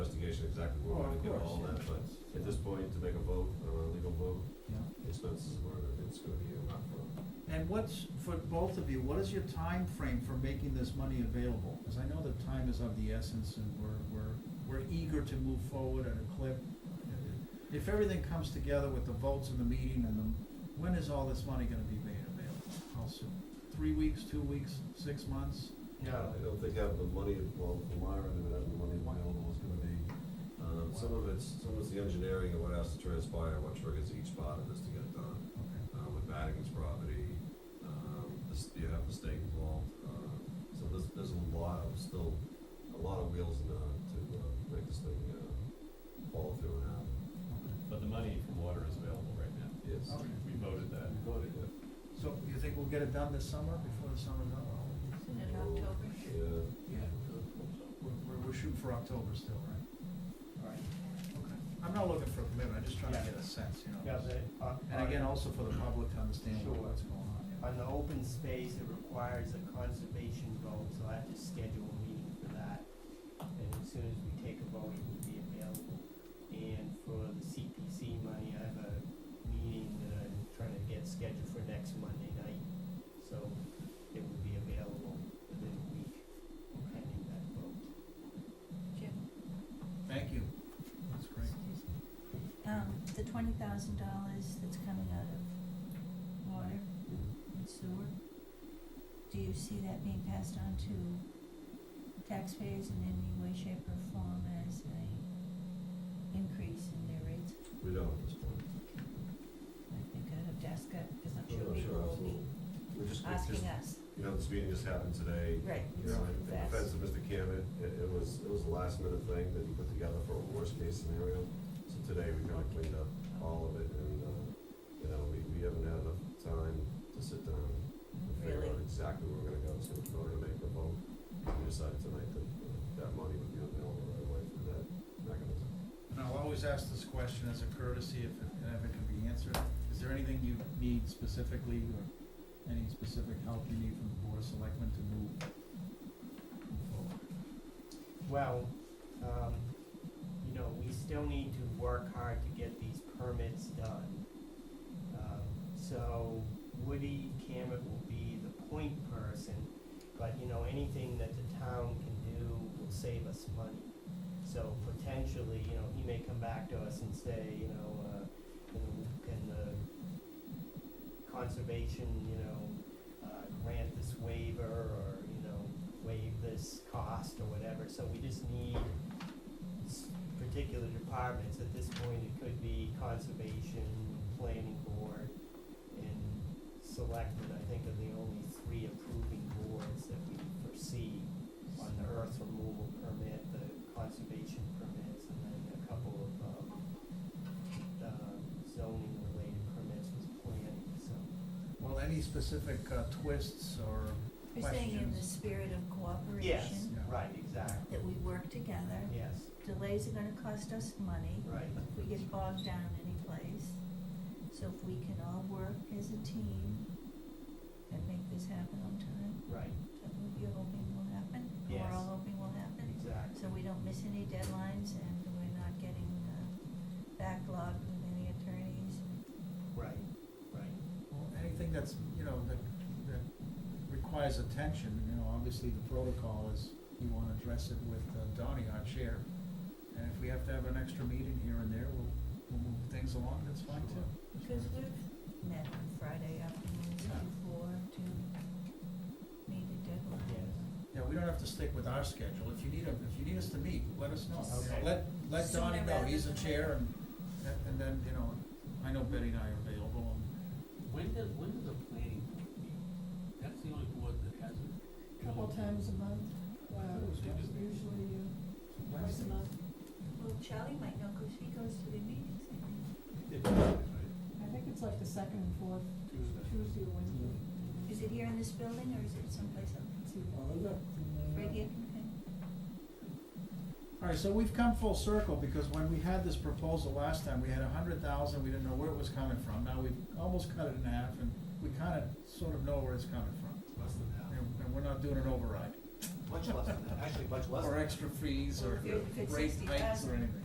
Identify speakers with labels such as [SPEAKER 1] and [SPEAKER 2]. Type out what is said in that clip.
[SPEAKER 1] clarification exactly where we're
[SPEAKER 2] Oh,
[SPEAKER 1] gonna
[SPEAKER 2] of
[SPEAKER 1] get
[SPEAKER 2] course,
[SPEAKER 1] all
[SPEAKER 2] yeah.
[SPEAKER 1] that, but at this point, to make a vote, or a legal vote,
[SPEAKER 2] Yeah.
[SPEAKER 1] expenses were, it's gonna be a lot for.
[SPEAKER 2] And what's, for both of you, what is your time frame for making this money available? Because I know that time is of the essence and we're, we're, we're eager to move forward at a clip. If everything comes together with the votes and the meeting and the, when is all this money gonna be made available? How soon? Three weeks, two weeks, six months?
[SPEAKER 1] I don't think having the money, well, from my end, having the money available is gonna be, um, some of it's, some of it's the engineering and what has to transpire, what triggers each part of this to get it done.
[SPEAKER 2] Okay.
[SPEAKER 1] uh, with Madigan's property, um, this, you have the state involved, uh, so there's, there's a lot of, still, a lot of wheels in, uh, to, uh, make this thing, uh, fall through and happen.
[SPEAKER 3] But the money from water is available right now.
[SPEAKER 1] Yes.
[SPEAKER 2] Okay.
[SPEAKER 3] We voted that.
[SPEAKER 1] We voted it.
[SPEAKER 2] So you think we'll get it done this summer, before the summer's up?
[SPEAKER 4] In October.
[SPEAKER 1] Yeah.
[SPEAKER 2] Yeah. We're, we're- we're shooting for October still, right? All right. Okay. I'm not looking for a commitment, I'm just trying to
[SPEAKER 5] Yeah.
[SPEAKER 2] get a sense, you know?
[SPEAKER 5] Yeah, the, uh,
[SPEAKER 2] And again, also for the public to understand what-
[SPEAKER 5] Sure.
[SPEAKER 2] what's going on. yeah.
[SPEAKER 5] On the open space, it requires a conservation vote, so I have to schedule a meeting for that. And as soon as we take a vote, it will be available. And for the CPC money, I have a meeting that I'm trying to get scheduled for next Monday night. So it will be available within a week, pending that vote.
[SPEAKER 4] Jim,
[SPEAKER 2] Thank you. That's great.
[SPEAKER 4] excuse me. Um, the twenty thousand dollars that's coming out of water and sewer, do you see that being passed on to taxpayers in any way, shape, or form as a increase in their rates?
[SPEAKER 1] We don't at this point.
[SPEAKER 4] I think I'd have to ask that, because I'm
[SPEAKER 1] I'm
[SPEAKER 4] sure
[SPEAKER 1] not
[SPEAKER 4] people will
[SPEAKER 1] Oh,
[SPEAKER 4] be
[SPEAKER 1] absolutely. We just, it's just,
[SPEAKER 4] asking us.
[SPEAKER 1] you know, this meeting just happened today,
[SPEAKER 4] Right.
[SPEAKER 1] you know, in in defense of Mr. Cammett, it, it was, it was a last minute thing that he put together for a worst case scenario. So today we kinda cleaned up all of it and, uh, you know, we, we haven't had enough time to sit down and figure
[SPEAKER 4] Really?
[SPEAKER 1] out exactly where we're gonna go, so we're gonna make the vote. We decided tonight that uh, that money would be available right away for that mechanism.
[SPEAKER 2] And I'll always ask this question as a courtesy if it, if it can be answered. Is there anything you need specifically or any specific help you need from the board of selectmen to move forward?
[SPEAKER 5] Well, um, you know, we still need to work hard to get these permits done. Um, so Woody Cameron will be the point person, but you know, anything that the town can do will save us money. So potentially, you know, he may come back to us and say, you know, uh, can, can the conservation, you know, uh, grant this waiver or, you know, waive this cost or whatever, so we just need s- particular departments, at this point, it could be conservation, planning board, and selected, I think are the only three approving boards that we foresee on the earth removal permit, the conservation permits, and then a couple of, um, um, zoning related permits with planning, so.
[SPEAKER 2] Well, any specific uh, twists or,
[SPEAKER 4] We're saying in the
[SPEAKER 2] Questions?
[SPEAKER 4] spirit of cooperation.
[SPEAKER 5] Yes,
[SPEAKER 2] Yeah.
[SPEAKER 5] right, exactly,
[SPEAKER 4] That we work together.
[SPEAKER 5] yes,
[SPEAKER 4] Delays are gonna cost us money
[SPEAKER 5] right,
[SPEAKER 4] if we get bogged down anyplace. So if we can all work as a team and make this happen on time,
[SPEAKER 5] right,
[SPEAKER 4] that what you're hoping will happen, and
[SPEAKER 5] Yes.
[SPEAKER 4] we're all hoping will happen.
[SPEAKER 5] exactly,
[SPEAKER 4] So we don't miss any deadlines and we're not getting uh, backlogged with any attorneys.
[SPEAKER 5] right, right.
[SPEAKER 2] well, anything that's, you know, that, that requires attention, you know, obviously the protocol is you wanna address it with uh, Donnie, our chair. And if we have to have an extra meeting here and there, we'll, we'll move things along, that's fine too.
[SPEAKER 4] Because we've met on Friday afternoons
[SPEAKER 2] Yeah.
[SPEAKER 4] before to meet a deadline.
[SPEAKER 5] Yes.
[SPEAKER 2] Yeah, we don't have to stick with our schedule, if you need, a- if you need us to meet, let us know, You know,
[SPEAKER 5] Okay.
[SPEAKER 2] let, let
[SPEAKER 4] Sooner
[SPEAKER 2] Donnie know,
[SPEAKER 4] rather
[SPEAKER 2] he's the
[SPEAKER 4] than
[SPEAKER 2] chair and, and- and then, you know, I know Betty and I are available and
[SPEAKER 6] When does, when does the planning board meet? That's the only board that hasn't.
[SPEAKER 7] Couple times a month, wow, usually uh, twice a month.
[SPEAKER 4] Well, Charlie might know because he goes to the meetings, I think.
[SPEAKER 7] I think it's like the second and fourth Tuesday or Wednesday.
[SPEAKER 4] Is it here in this building or is it someplace else?
[SPEAKER 7] Let's see, well, look,
[SPEAKER 4] Right
[SPEAKER 7] uh,
[SPEAKER 4] here? Okay.
[SPEAKER 2] All right, so we've come full circle, because when we had this proposal last time, we had a hundred thousand, we didn't know where it was coming from, now we've almost cut it in half, and we kinda sort of know where it's coming from,
[SPEAKER 1] Less than half.
[SPEAKER 2] and, and we're not doing an override.
[SPEAKER 8] much less than that, actually much less.
[SPEAKER 2] Or extra fees or
[SPEAKER 4] If it- if it's
[SPEAKER 2] rate hikes or
[SPEAKER 4] 60,000.
[SPEAKER 2] anything.